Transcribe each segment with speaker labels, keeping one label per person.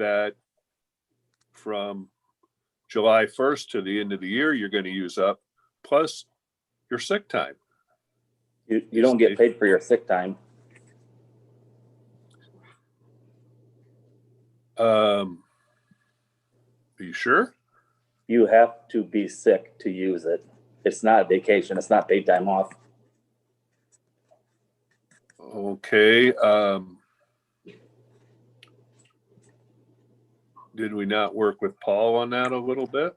Speaker 1: that from July first to the end of the year, you're gonna use up, plus your sick time.
Speaker 2: You, you don't get paid for your sick time.
Speaker 1: Um, are you sure?
Speaker 2: You have to be sick to use it. It's not vacation. It's not paid time off.
Speaker 1: Okay, um. Did we not work with Paul on that a little bit?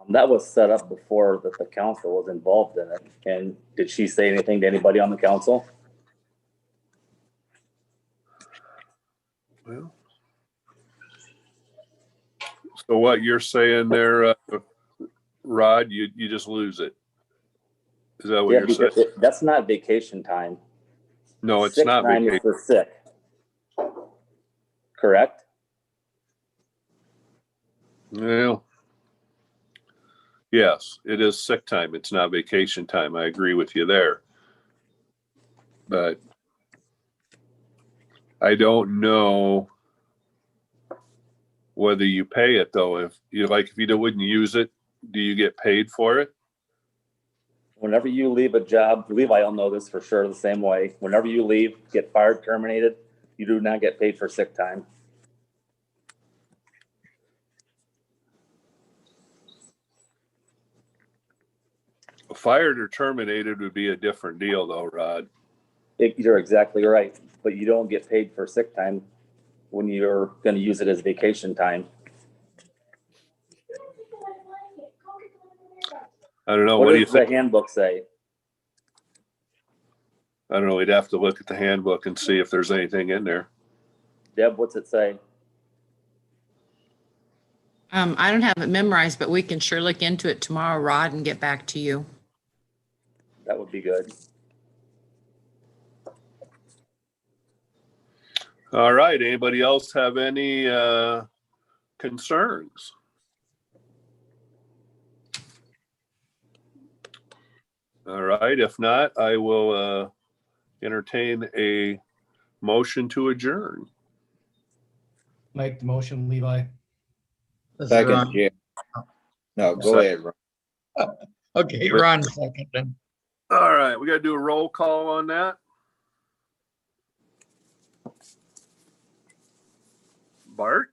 Speaker 2: Um, That was set up before that the council was involved in it. And did she say anything to anybody on the council?
Speaker 1: Well. So what you're saying there, uh, Rod, you, you just lose it? Is that what
Speaker 2: Yeah,
Speaker 1: Oh, you're
Speaker 2: because
Speaker 1: saying?
Speaker 2: it- that's not vacation time.
Speaker 1: No, it's
Speaker 2: Sick
Speaker 1: not
Speaker 2: time is
Speaker 1: vacation.
Speaker 2: For sick. Correct?
Speaker 1: Well. Yes, it is sick time. It's not vacation time. I agree with you there. But I don't know whether you pay it though. If you like, if you don't- wouldn't use it, do you get paid for it?
Speaker 2: Whenever you leave a job, Levi will know this for sure the same way. Whenever you leave, get fired, terminated, you do not get paid for sick time.
Speaker 1: Fired or terminated would be a different deal though, Rod.
Speaker 2: It- You're exactly right, but you don't get paid for sick time when you're gonna use it as vacation time.
Speaker 1: I don't know. Oh, What
Speaker 2: What
Speaker 1: do you
Speaker 2: does the
Speaker 1: think?
Speaker 2: handbook say?
Speaker 1: I don't know. We'd have to look at the handbook and see if there's anything in there.
Speaker 2: Deb, what's it say?
Speaker 3: Um, I don't have it memorized, but we can sure look into it tomorrow, Rod, and get back to you.
Speaker 2: That would be good.
Speaker 1: All right, anybody else have any uh concerns? All right, if not, I will uh entertain a motion to adjourn.
Speaker 4: Make the motion, Levi.
Speaker 5: Ron.
Speaker 6: Second, yeah. No, go
Speaker 1: Second.
Speaker 6: ahead, Ron.
Speaker 5: Okay, Ron second then.
Speaker 1: All right, we gotta do a roll call on that. Bart,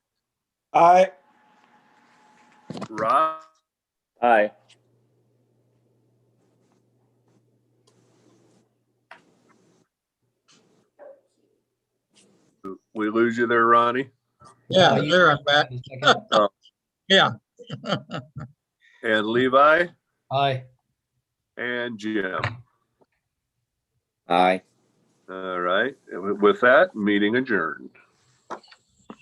Speaker 7: Aye.
Speaker 1: Rob,
Speaker 2: Aye.
Speaker 1: we lose you there, Ronnie,
Speaker 5: Yeah, there I'm back.
Speaker 4: Second.
Speaker 5: Yeah.
Speaker 1: and Levi
Speaker 4: Aye.
Speaker 1: and Jim.
Speaker 6: Aye.
Speaker 1: All right, with that, meeting adjourned.